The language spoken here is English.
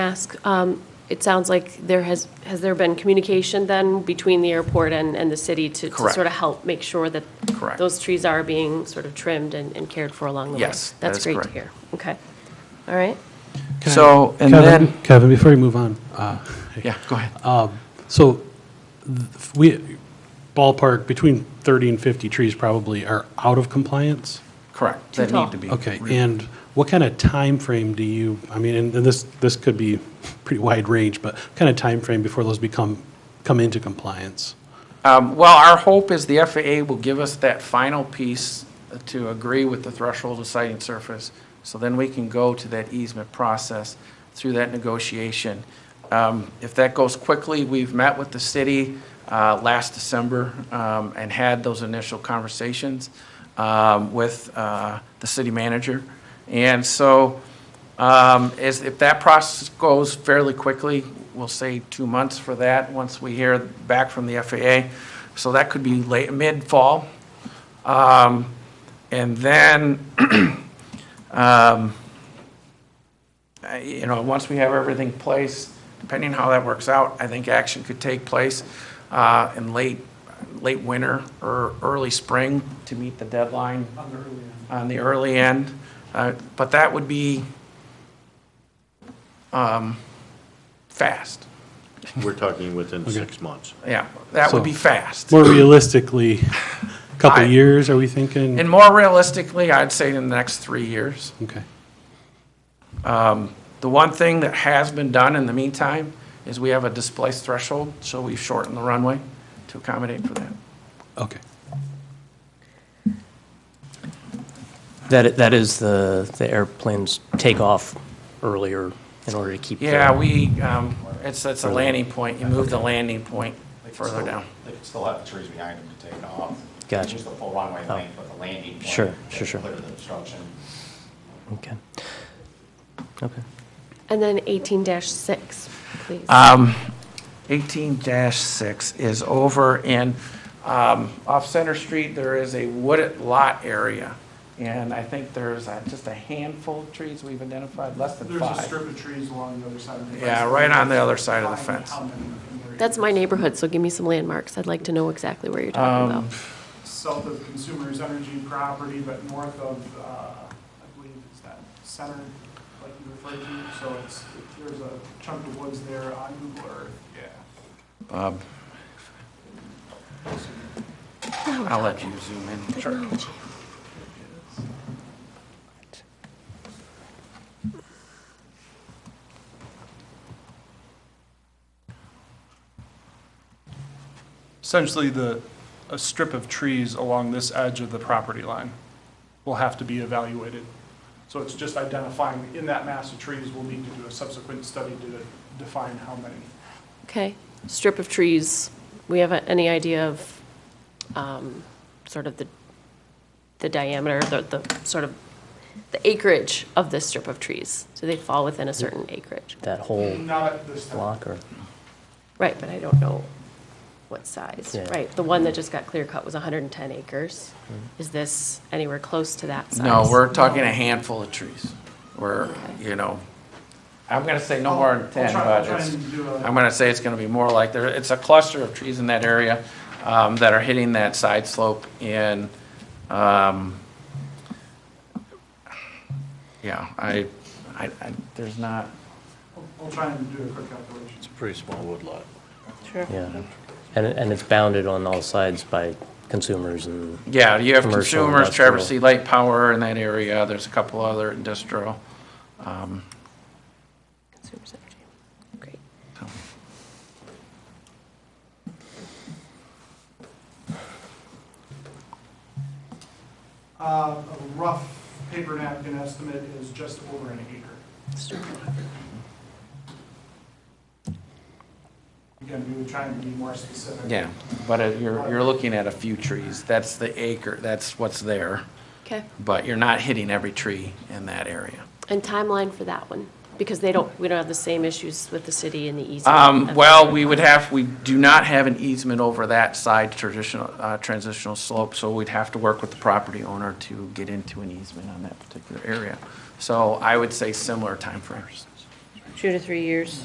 ask, um, it sounds like there has, has there been communication then between the airport and, and the city to, to Correct. sort of help make sure that Correct. those trees are being sort of trimmed and, and cared for along the way? Yes, that is That's great to correct. hear. Okay. All right. Can I- So, and Kevin- then- Kevin, before you move on, uh, Yeah, go ahead. so th- we, ballpark, between 30 and 50 trees probably are out of compliance? Correct. Too That tall. need to be. Okay, re- and what kind of time frame do you, I mean, and and this, this could be pretty wide range, but what kind of time frame before those become, come into compliance? Um, Well, our hope is the FAA will give us that final piece to agree with the threshold of sighting surface, so then we can go to that easement process through that negotiation. Um, If that goes quickly, we've met with the city uh, last December um, and had those initial conversations um, with uh, the city manager. And so um, is, if that process goes fairly quickly, we'll say two months for that, once we hear back from the FAA. So that could be late, mid-fall. Um, and then, um, I- you know, once we have everything in place, depending how that works out, I think action could take place, uh, in late, late winter or early spring to meet the deadline. On the early end. Uh, but that would be, fast. We're talking within six months. Yeah, that would be So- fast. More realistically, a couple I- years, are we thinking? And more realistically, I'd say in the next three years. Okay, The one thing that has been done in the meantime is we have a displaced threshold, so we've shortened the runway to accommodate for that. okay. That, that is the, the airplanes take off earlier in order to keep. the- Yeah, we, um, it's, it's a landing point. You move the landing point further down. They could still have the trees behind them to take off. Gotcha. Use the full runway Oh. length, but the landing point. Sure, to sure, sure. Clear the obstruction. Okay. Okay. And then eighteen six, please. Uh, Um, 18-6 is over in, um, off Center Street, there is a wooded lot area. And I think there's uh, just a handful of trees we've identified, less than There's a five. strip of trees along the other side of the fence. Yeah, right on the other side of the Find fence. how many in there. That's my neighborhood, so give me some landmarks. I'd like to know exactly where you're um, talking about. South of Consumers Energy property, but north of, uh, I believe it's that center, like you referred to. So it's, there's a chunk of woods there on Google Earth. Yeah. I'll let you zoom in. Sure. Essentially, the, a strip of trees along this edge of the property line will have to be evaluated. So it's just identifying, in that mass of trees, we'll need to do a subsequent study to define how many. Okay. Strip of trees, we have a- any idea of um, sort of the the diameter, the, the sort of the acreage of this strip of trees? Do they fall within a certain acreage? That whole Not at this time. block or, Right, but I don't know what size. Yeah. Right, the one that just got clear cut was 110 acres. Is this anywhere close to that size? No, we're talking a handful of trees. We're, you know, I'm gonna say no more than I'll- I'll ten, try- I'll but try it's, and do a- I'm gonna say it's gonna be more like, there, it's a cluster of trees in that area um, that are hitting that side slope and, um, yeah, I, I, I- there's not, I'll- I'll try and do a quick calculation. It's a pretty small woodlot. yeah. And, it- and it's bounded on all sides by consumers and, yeah, you have Commercial, consumers, Traverse industrial. City Light Power in that area, there's a couple other industrial. um, Consumers Energy. Great. so. Uh, A rough paper napkin estimate is just over an acre. Again, we would try and be more specific. Yeah, but it- you're, you're looking at a few trees. That's the acre, that's what's there, Okay. but you're not hitting every tree in that area. And timeline for that one? Because they don't, we don't have the same issues with the city and the easement. Um, That's- well, we would have, we do not have an easement over that side traditional, uh, transitional slope, so we'd have to work with the property owner to get into an easement on that particular area. So I would say similar timeframes. two to three years.